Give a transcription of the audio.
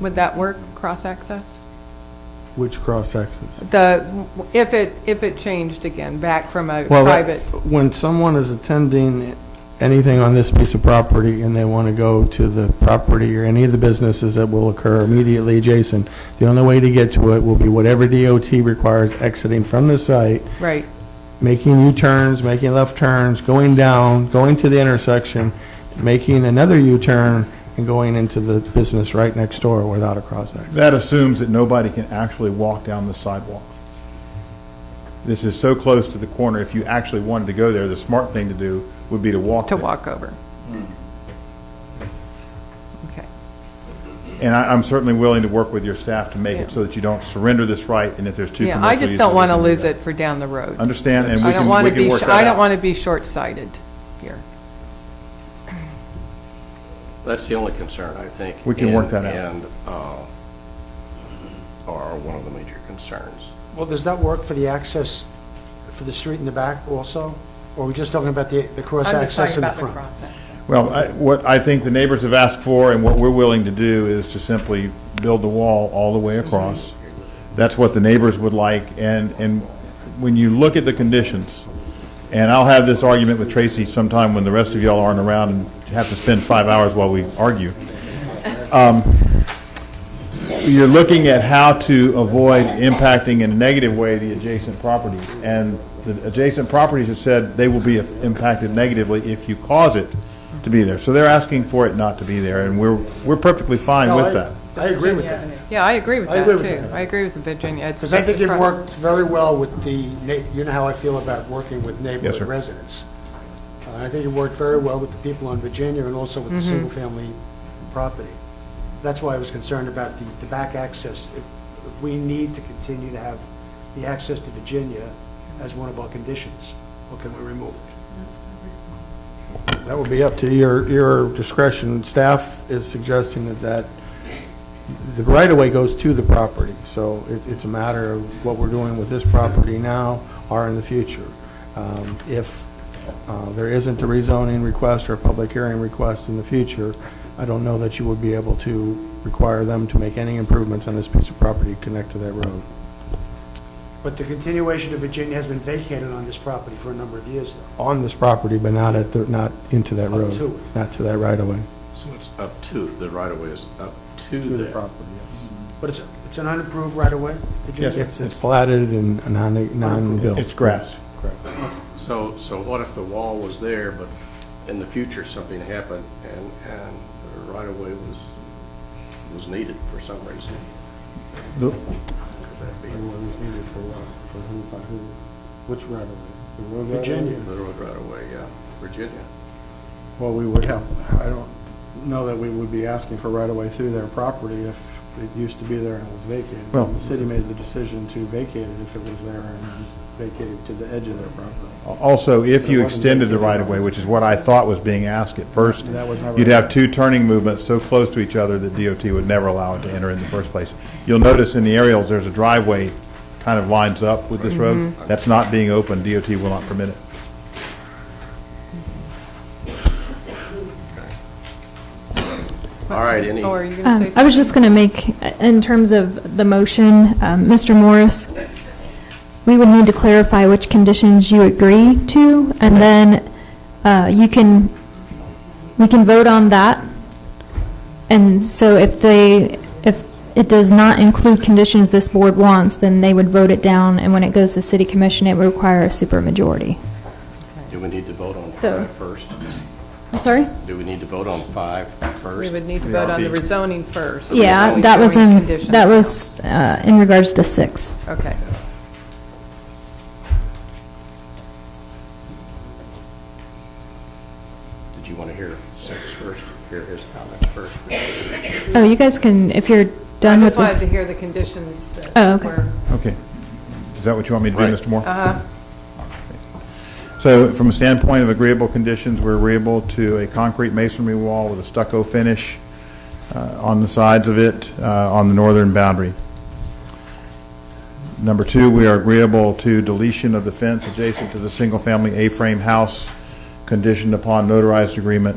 Would that work, cross-access? Which cross-access? The, if it, if it changed again, back from a Well, private, that- when someone is attending anything on this piece of property and they want to go to the property or any of the businesses that will occur immediately adjacent, the only way to get to it will be whatever DOT requires exiting from the site, right, making U-turns, making left turns, going down, going to the intersection, making another U-turn, and going into the business right next door without a cross-access. That assumes that nobody can actually walk down the sidewalk. This is so close to the corner, if you actually wanted to go there, the smart thing to do would be to walk to there. walk over? Hmm. Okay, And I, I'm certainly willing to work with your staff to make Yeah. it so that you don't surrender this right, and if there's two yeah, commercial I uses. just don't we want to can do lose that. it for down the road. Understand, and we I don't can, want we to be, can work sh- that I don't out. want to be short-sighted here. That's the only concern, I think. We can work and- that out. And, uh, are one of the major concerns. Well, does that work for the access for the street in the back also? Or are we just talking about the, the cross I'm just talking access in the about the front? cross-access. Well, I- what I think the neighbors have asked for and what we're willing to do is to simply build the wall all the way across. That's what the neighbors would like, and, and when you look at the conditions, and I'll have this argument with Tracy sometime when the rest of y'all aren't around and have to spend five hours while we argue. Um, You're looking at how to avoid impacting in a negative way the adjacent properties, and the adjacent properties have said they will be impacted negatively if you cause it to be there. So they're asking for it not to be there, and we're, we're perfectly fine No, I- with that. I agree with that. Yeah, I agree with I that, agree with too. that. I agree with the Virginia. It's- Because I it's think a it cross- worked very well with the, na- you know how I feel about working with neighborhood sir. residents. Uh, I think it worked very well with the people on Virginia and also with the Mm-hmm. single-family property. That's why I was concerned about the, the back access. If, if we need to continue to have the access to Virginia as one of our conditions, or can we remove it? That would be up to your, your discretion. Staff is suggesting that that, the right-of-way goes to the property, so it, it's a matter of what we're doing with this property now or in the future. Um, If uh, there isn't a rezoning request or a public hearing request in the future, I don't know that you would be able to require them to make any improvements on this piece of property connect to that road. But the continuation of Virginia has been vacated on this property for a number of years, though. On this property, but not at, the not into that Up road. to it. Not to that right-of-way. So it's up to, the right-of-way is up to To the there. property, But it's, it's an unimproved right-of-way, Virginia? It's, it's platted and non- non-built. It's grass. So, so what if the wall was there, but in the future, something happened and, and the right-of-way was, was needed for some reason? The- Could that be Which right away? Virginia. the road right-of-way, yeah, Virginia? Well, we would have, I don't know that we would be asking for right away through their property if it used to be there and it was vacated. Well- The city made the decision to vacate it if it was there and it was vacated to the edge of their property. Also, if It you wasn't extended the vacated. right-of-way, which is what I thought was being asked at first, That was never- you'd have two turning movements so close to each other that DOT would never allow it to enter in the first place. You'll notice in the aerials, there's a driveway kind of lines up with this road. Mm-hmm. That's not being open. DOT will not permit it. All right, any, Oh, are you going to say Um, something? I was just going to make, in terms of the motion, um, Mr. Morris, we would need to clarify which conditions you agree to, and then uh, you can, we can vote on that. And so if they, if it does not include conditions this board wants, then they would vote it down, and when it goes to city commission, it would require a supermajority. do we need to vote on So- five first? I'm sorry? Do we need to vote on five first? We would need to vote on the rezoning first. Yeah, only that was Showing in, conditions that now. was uh, in regards to six. Okay. Did you want to hear six first, hear his comments first? Oh, you guys can, if you're I done with just the... wanted to hear the conditions Oh, that okay. were, Okay. Is that what you want me to do, Right. Mr. Moore? So from a standpoint of agreeable conditions, we're agreeable to a concrete masonry wall with a stucco finish uh, on the sides of it, uh, on the northern boundary. Number two, we are agreeable to deletion of the fence adjacent to the single-family A-frame house, conditioned upon notarized agreement